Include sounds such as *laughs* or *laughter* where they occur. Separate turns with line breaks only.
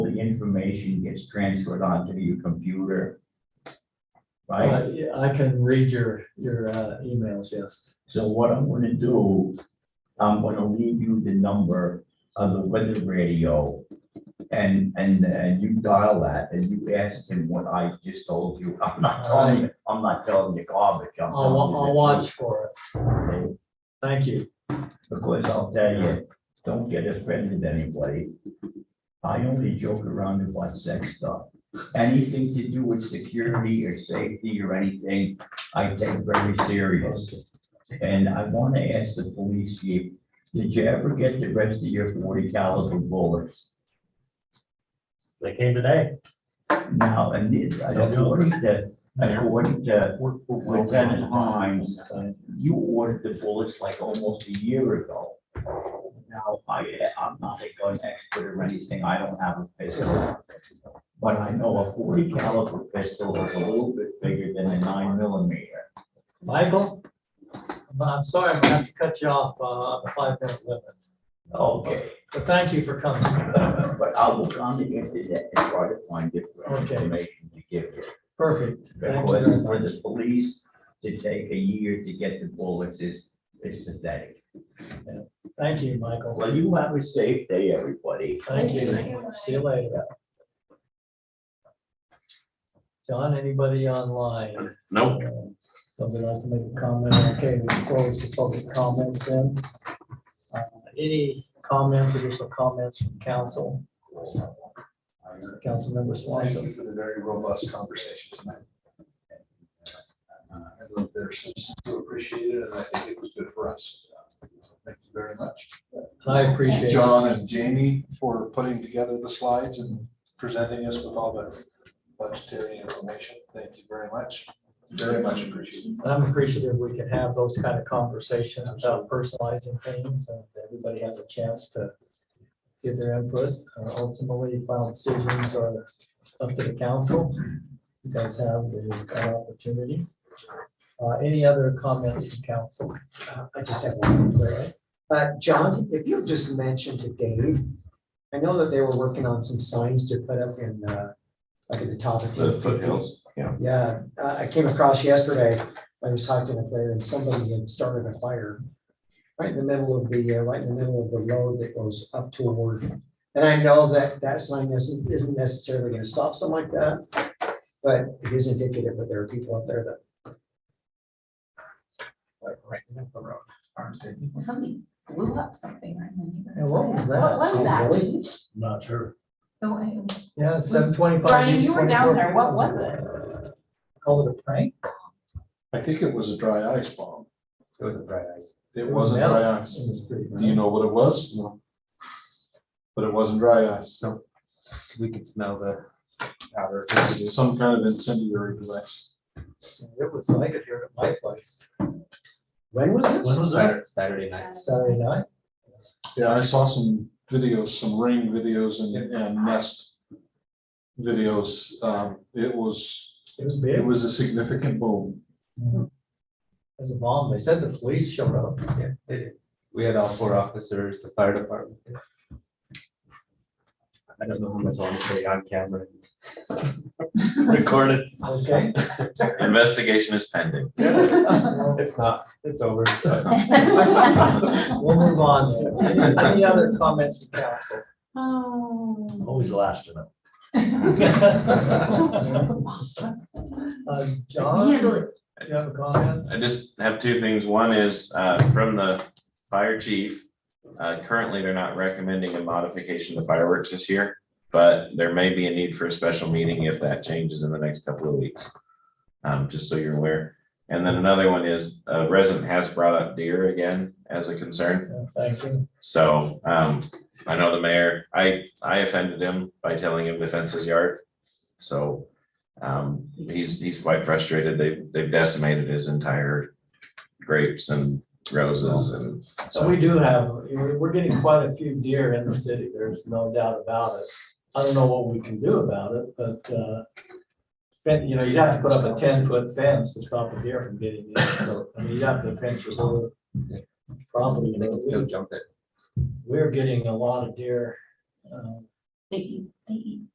information gets transferred onto your computer. Right?
Uh, yeah, I can read your, your uh, emails, yes.
So what I'm gonna do, I'm gonna leave you the number of the weather radio. And, and, and you dial that and you ask him what I just told you. I'm not telling you, I'm not telling you garbage. I'm
I'll,
telling
wa-
you
I'll
the
watch for it.
truth. Okay?
Thank you.
Because I'll tell you, don't get offended anybody. I only joke around about sex stuff. Anything to do with security or safety or anything, I take very serious. And I want to ask the police chief, did you ever get the rest of your forty caliber bullets?
They came today.
Now, and it- according to, according to Lieutenant Hines, uh, you ordered the bullets like almost a year ago. Now, I, I'm not a gun expert or anything, I don't have a pistol. But I know a forty caliber pistol is a little bit bigger than a nine millimeter.
Michael? I'm- I'm sorry, I'm gonna have to cut you off uh, on the five minute limit,
Okay, *laughs*
but thank you for coming.
but I will on the internet and try to find different
Okay.
information to give you.
Perfect. Thank you very
Because
much.
for the police to take a year to get the bullets is, is pathetic.
Thank you, Michael.
Well, you have a safe day, everybody.
Thank you.
you.
See you later. John, anybody online? Uh,
Nope.
Somebody like to make a comment? Okay, we close the public comments then. Uh, Any comments, additional comments from council? Councilmember
Thank
Swanson?
you for the very robust conversation tonight. I love their sense to appreciate it, and I think it was good for us. Thank you very much.
I appreciate it.
John and Jamie for putting together the slides and presenting us with all the budgetary information. Thank you very much. Very much appreciated.
I'm appreciative we can have those kind of conversations about personalizing things and everybody has a chance to give their input. Uh, Ultimately, final decisions are up to the council. You guys have the that opportunity. Uh, Any other comments from council?
Uh, I just have one. Uh, John, if you just mentioned to Dave, I know that they were working on some signs to put up in, uh, like in the top of. The foothills, yeah. Yeah, uh, I came across yesterday, I was talking up there and somebody had started a fire right in the middle of the, uh, right in the middle of the road that goes up toward. And I know that that sign isn't, isn't necessarily gonna stop something like that, but it is indicative that there are people up there that. Like right in the road.
Aren't they?
Somebody blew up something. right in the
And what was that?
What was that?
Really?
Keith?
Not sure.
The way-
Yeah, seven twenty-five.
Brian, you were down there. What was it?
Call it a prank?
I think it was a dry ice bomb.
It was a bright ice.
It
was
wasn't
metal.
dry ice.
It was pretty
Do you know what it was? No. But it wasn't dry ice. No.
We could smell the powder.
Some kind of incendiary device.
It was, I could hear it at my place
When was this?
When was that?
Saturday night.
Saturday night.
Yeah, I saw some videos, some ring videos and, and nest videos. Um, it was,
It was
it
big.
was a significant boom.
As a bomb, they said the police showed up.
We had all four officers, the fire department. I don't know how much I want to say on camera.
Recorded.
Okay.
Investigation is pending.
Well,
It's not, it's over.
*laughs*
*laughs*
We'll move on. then. Any- Any other comments from *laughs* council?
Oh.
Always last to know.
Uh, John, do you have a comment?
I just have two things. One is uh, from the fire chief. Uh, Currently, they're not recommending a modification to fireworks this year, but there may be a need for a special meeting if that changes in the next couple of weeks. Um, Just so you're aware. And then another one is a resident has brought up deer again as a concern.
No, Thank you.
So um, I know the mayor, I, I offended him by telling him to fence his yard. So um, he's, he's quite frustrated. They've, they've decimated his entire grapes and roses and.
So we do have, we're we're getting quite a few deer in the city. There's no doubt about it. I don't know what we can do about it, but, uh, fen- you know, you'd have to put up a ten-foot fence to stop a deer from getting in. So, I mean, you'd have to fence your whole property.
They can still jump it.
We're getting a lot of deer. um,
*laughs* They eat, they eat